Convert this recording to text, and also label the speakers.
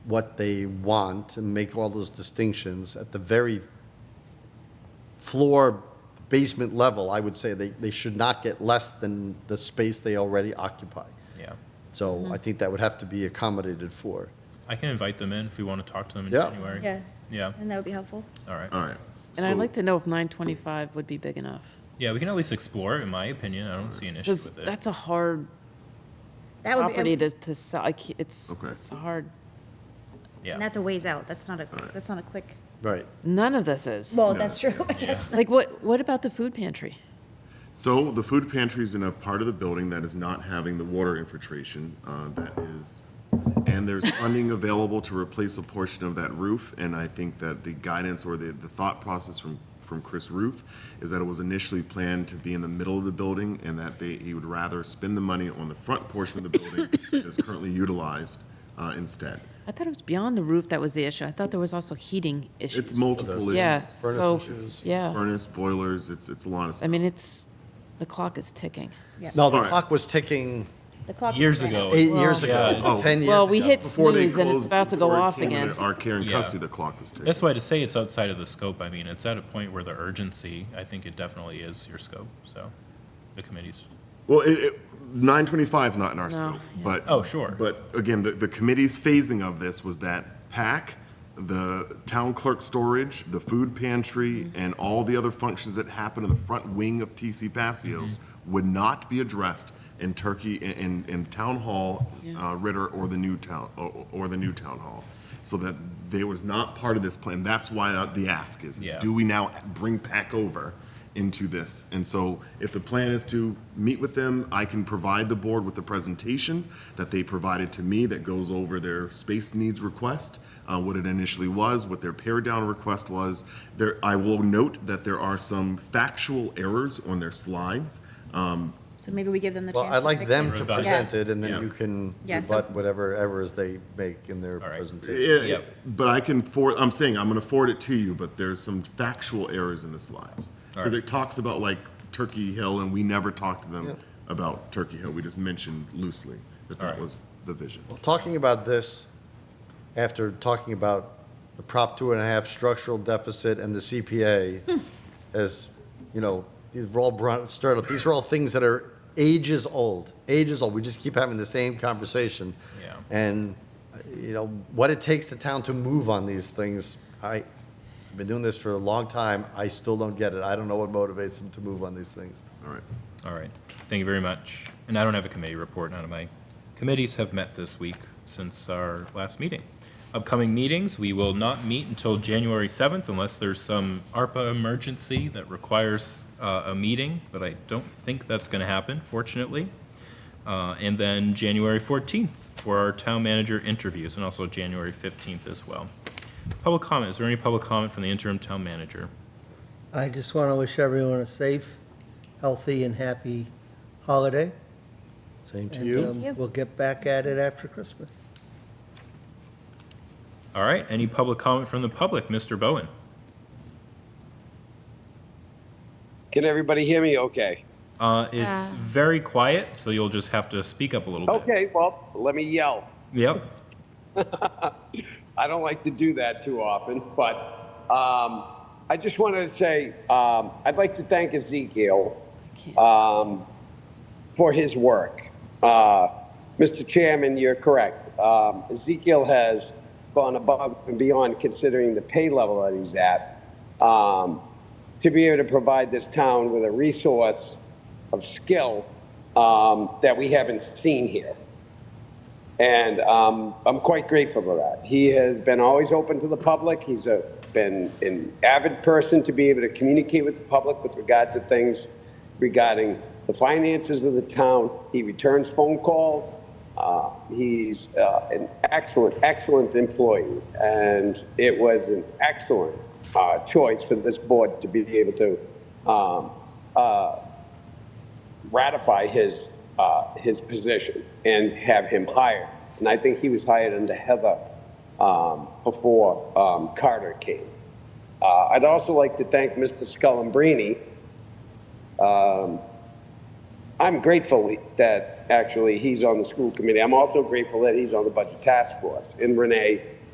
Speaker 1: what they want and make all those distinctions at the very floor basement level, I would say they, they should not get less than the space they already occupy.
Speaker 2: Yeah.
Speaker 1: So
Speaker 3: Mm-hmm.
Speaker 1: I think that would have to be accommodated for.
Speaker 2: I can invite them in if we want to talk to them in
Speaker 1: Yeah.
Speaker 2: January.
Speaker 4: Yeah,
Speaker 2: Yeah,
Speaker 4: and that would be helpful.
Speaker 2: all right.
Speaker 5: All right.
Speaker 3: And I'd
Speaker 5: So-
Speaker 3: like to know if 925 would be big enough.
Speaker 2: Yeah, we can at least explore it, in my opinion. I don't see an issue
Speaker 3: Because
Speaker 2: with it.
Speaker 3: that's a hard
Speaker 4: That would
Speaker 3: property
Speaker 4: be,
Speaker 3: to, to sell. I can't- It's,
Speaker 5: Okay.
Speaker 3: it's a hard,
Speaker 4: and
Speaker 2: Yeah.
Speaker 4: that's a ways out. That's not a,
Speaker 5: right.
Speaker 4: that's not a quick.
Speaker 1: Right.
Speaker 3: none of this is.
Speaker 4: Well, that's true, I guess.
Speaker 3: Like, what, what about the food pantry?
Speaker 5: So the food pantry is in a part of the building that is not having the water infiltration uh, that is, and there's funding available to replace a portion of that roof. And I think that the guidance or the, the thought process from, from Chris Ruth is that it was initially planned to be in the middle of the building and that they, he would rather spend the money on the front portion of the building that is currently utilized uh, instead.
Speaker 3: I thought it was beyond the roof that was the issue. I thought there was also heating
Speaker 5: It's
Speaker 3: issues.
Speaker 5: multiple
Speaker 3: Yeah,
Speaker 5: issues.
Speaker 3: so, yeah.
Speaker 5: Furnace, boilers, it's, it's a lot of
Speaker 3: I
Speaker 5: stuff.
Speaker 3: mean, it's, the clock is ticking.
Speaker 1: No, the
Speaker 5: All right.
Speaker 1: clock was ticking
Speaker 4: The clock
Speaker 2: Years
Speaker 4: ran out.
Speaker 2: ago.
Speaker 1: eight years
Speaker 2: Oh, yeah,
Speaker 1: ago,
Speaker 5: it's-
Speaker 1: 10 years ago.
Speaker 3: Well, we hit
Speaker 5: Before they
Speaker 3: snooze and it's
Speaker 5: closed-
Speaker 3: about to go
Speaker 5: before it
Speaker 3: off
Speaker 5: came
Speaker 3: again.
Speaker 5: into Our care and
Speaker 2: Yeah.
Speaker 5: custody, the clock was ticking.
Speaker 2: That's why to say it's outside of the scope, I mean, it's at a point where the urgency, I think it definitely is your scope, so the committee's,
Speaker 5: Well, it, it, nine twenty-five not in our scope, but
Speaker 2: Oh, sure.
Speaker 5: But again, the, the committee's phasing of this was that PAC, the town clerk storage, the food pantry,
Speaker 3: Mm-hmm.
Speaker 5: and all the other functions that happen in the front wing of TC Passios
Speaker 3: Mm-hmm.
Speaker 5: would not be addressed in Turkey in, in, in town hall, uh, Ritter or the new town or, or the new town hall, so that they was not part of this plan. That's why uh, the ask is, is
Speaker 2: Yeah.
Speaker 5: do we now bring PAC over into this? And so if the plan is to meet with them, I can provide the board with the presentation that they provided to me that goes over their space needs request, uh, what it initially was, what their pare down request was. There, I will note that there are some factual errors on their slides. Um,
Speaker 4: So maybe we give them the
Speaker 1: Well,
Speaker 4: chance.
Speaker 1: I'd like
Speaker 4: fix
Speaker 1: them
Speaker 4: it.
Speaker 1: to
Speaker 2: Revise it.
Speaker 1: present it, and then
Speaker 5: Yeah.
Speaker 1: you can
Speaker 4: Yeah, so-
Speaker 1: rebut whatever errors they make in their
Speaker 2: All right.
Speaker 1: presentation.
Speaker 5: yeah,
Speaker 2: Yep.
Speaker 5: But I can forward, I'm saying, I'm gonna forward it to you, but there's some factual errors in the slides. Because it talks about like Turkey Hill, and we never talked to them about Turkey Hill, we just mentioned loosely that that
Speaker 2: right.
Speaker 5: was the vision.
Speaker 1: Talking about this, after talking about the Prop two and a half structural deficit and the CPA, as, you know, these were all brought, stirred up, these are all things that are ages old, ages old, we just keep having the same conversation.
Speaker 2: Yeah.
Speaker 1: And, uh, you know, what it takes the town to move on these things, I, I've been doing this for a long time, I still don't get it, I don't know what motivates them to move on these things.
Speaker 5: All right.
Speaker 2: all right. Thank you very much. And I don't have a committee report, none of my committees have met this week since our last meeting. Upcoming meetings, we will not meet until January 7th unless there's some ARPA emergency that requires uh, a meeting, but I don't think that's going to happen, fortunately. Uh, And then January 14th for our town manager interviews, and also January 15th as well. Public comment, is there any public comment from the interim town manager?
Speaker 6: I just want to wish everyone a safe, healthy, and happy holiday.
Speaker 1: Same to
Speaker 6: And,
Speaker 1: you?
Speaker 6: um, We'll get back at it after Christmas.
Speaker 2: All right, any public comment from the public? Mr. Bowen?
Speaker 7: Can everybody hear me okay?
Speaker 2: Uh, it's
Speaker 4: Uh.
Speaker 2: very quiet, so you'll just have to speak up a little bit.
Speaker 7: Okay, well, let me yell.
Speaker 2: Yep.
Speaker 7: I don't like to do that too often, but um, I just wanted to say um, I'd like to thank Ezekiel
Speaker 3: Can't-
Speaker 7: um, for his work. Uh, Mr. Chairman, you're correct. Um, Ezekiel has gone above and beyond considering the pay level that he's at um, to be able to provide this town with a resource of skill um, that we haven't seen here. And um, I'm quite grateful for that. He has been always open to the public. He's a, been an avid person to be able to communicate with the public with regard to things regarding the finances of the town. He returns phone calls. Uh, he's uh, an excellent, excellent employee. And it was an excellent uh, choice for this board to be able to um, uh, ratify his uh, his position and have him hired. And I think he was hired under Heather um, before um, Carter came. Uh, I'd also like to thank Mr. Scullambrini. Um, I'm grateful that actually he's on the school committee. I'm also grateful that he's on the budget task force and Renee